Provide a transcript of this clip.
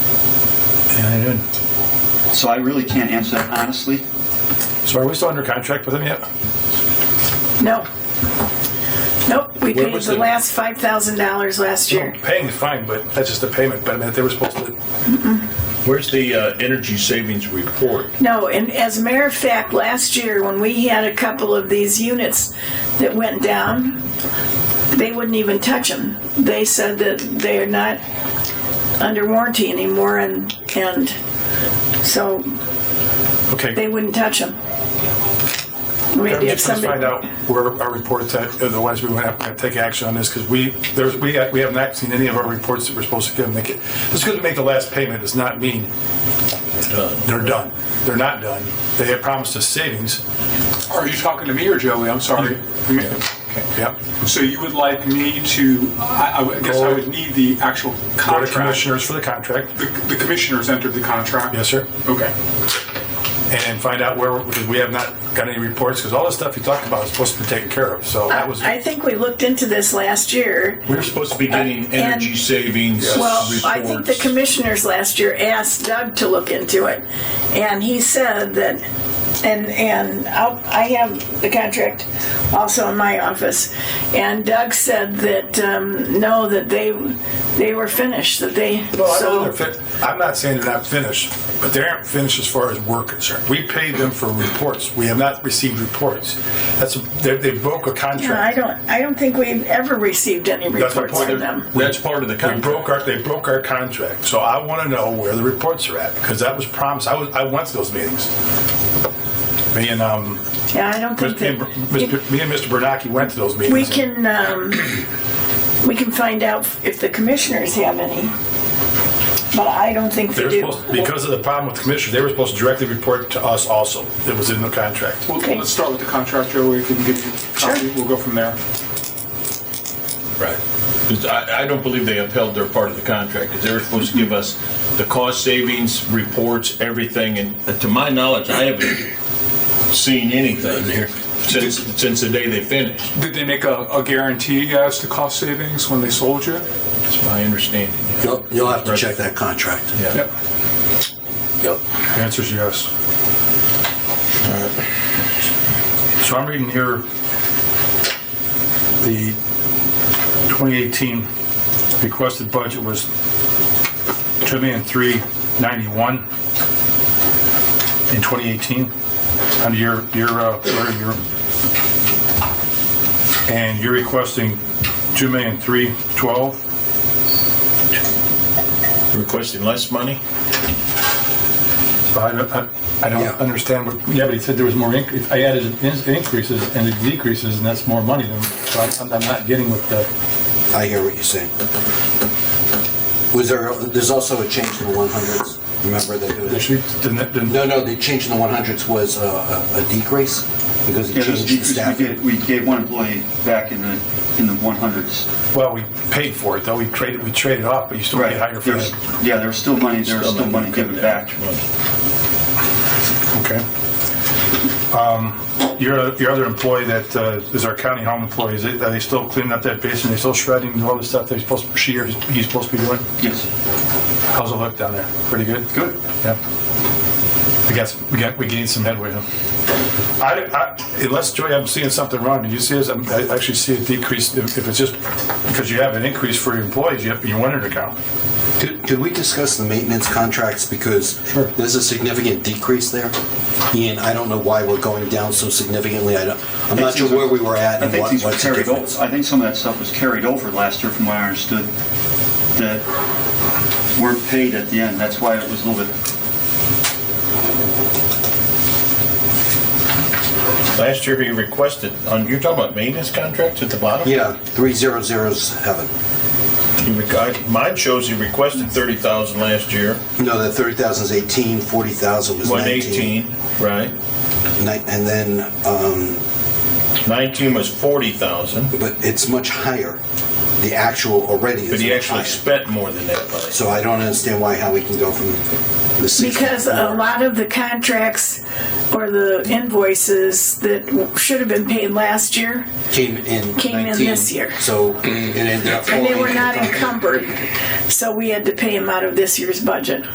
Yeah, I did. So I really can't answer that honestly. So are we still under contract with them yet? No. Nope, we What paid was the the- last five thousand dollars last year. Oh, Paying is fine, but that's just the payment. But I mean, they were supposed to. Where's the uh, energy savings report? No, and as a matter of fact, last year when we had a couple of these units that went down, they wouldn't even touch them. They said that they're not under warranty anymore and, and so Okay. they wouldn't touch them. We had I'm to have just going to find out somebody, where our report's at. Otherwise, we won't have to take action on this because we there's we we have not seen any of our reports that we're supposed to give them. They get- Just because we make the last payment does not mean they're done. They're not done. They have promised us savings. Are you talking to me or Joey? I'm sorry. I mean, Yeah. So you would like me to, I I would- guess I would need the actual Board of contract. Commissioners for the contract. The the commissioners entered the contract? Yes, sir. Okay. and find out where, because we have not got any reports, because all the stuff you talked about is supposed to be taken care of, so that was, Uh, I think we looked into this last year We were supposed to be getting energy And- savings Well, reports. I think the commissioners last year asked Doug to look into it, and he said that, and, and I'll- I have the contract also in my office, and Doug said that, um, no, that they, they were finished, that they, no, I know they're so, fin, I'm not saying they're not finished, but they aren't finished as far as we're concerned. We paid them for reports, we have not received reports. That's, they, they broke a No, I contract. don't, I don't think we've ever received any That's my reports point. from them. That's part of the They contract. broke our, they broke our contract, so I want to know where the reports are at, because that was promised, I was, I went to those meetings. Me and, um, Yeah, I don't think Mr. that. and- Mr. me and Mr. Bernacki went to those meetings. We and- can, um, we can find out if the commissioners have any, but I don't think They they were do. supposed, because of the problem with the commissioner, they were supposed to directly report to us also. It was in the contract. Well, Okay. let's start with the contract, Joey, if you can give me a copy, we'll go from there. Right. 'Cause I, I don't believe they upheld their part of the contract, because they were supposed to give us the cost savings, reports, everything, and uh, to my knowledge, I haven't seen anything here since, since the day they finished. Did they make a a guarantee as to cost savings when they sold you? That's my understanding. yeah. You'll, you'll have to check that contract. Yeah. Yep. Yep. The answer is yes. So I'm reading here the 2018 requested budget was two million three ninety-one in 2018 under your, your, uh, or your, and you're requesting two million three twelve. Requesting less money? I don't, I- I Yeah. don't understand what, yeah, but he said there was more increase, I added in- increases and it decreases, and that's more money than, so I'm, I'm not getting with the, I hear what you're saying. Was there, there's also a change in the 100s. Remember the that? sheet, the, the, No, no, the change in the 100s was a, a, a decrease because it Yeah, changed those the decreases we staff. did, we gave one employee back in the, in the 100s. well, we paid for it, though, we traded, we traded off, but you still get higher for There's- it. Yeah, there was still money, there was still money given back. Okay. Um, Your, your other employee that uh, is our county home employee, is it, are they still cleaning up that basement, they still shredding and all the stuff they're supposed, she or he's supposed to be doing? Yes, How's it look down there? Pretty good? good. Yeah. I guess we got, we gained some headway, huh? I, I, unless Joy, I'm seeing something wrong. Do you see this? I'm- I actually see a decrease if if it's just because you have an increase for your employees, you have your winter account. Could, could we discuss the maintenance contracts because Sure. there's a significant decrease there? Ian, I don't know why we're going down so significantly. I don't, I'm not sure where we were at I and think what, these were what's the carried over, difference. I think some of that stuff was carried over last year from what I understood, that weren't paid at the end, that's why it was a little bit, Last year, he requested, on- you're talking about maintenance contracts at the bottom? Yeah, three zero zeros heaven. He rec- I- Mine shows he requested 30,000 last year, No, the 30,000 is 18, 40,000 was 19. 118, right? Ni- And then, um, 19 was 40,000, but it's much higher. The actual already is but he much actually higher. spent more than that last So I don't understand why, how we can go from the six. Because a lot of the contracts or the invoices that w- should have been paid last year, Came in. Came in 19, this year. So it ended up. and they falling were into not the- encumbered, so we had to pay them out of this year's budget.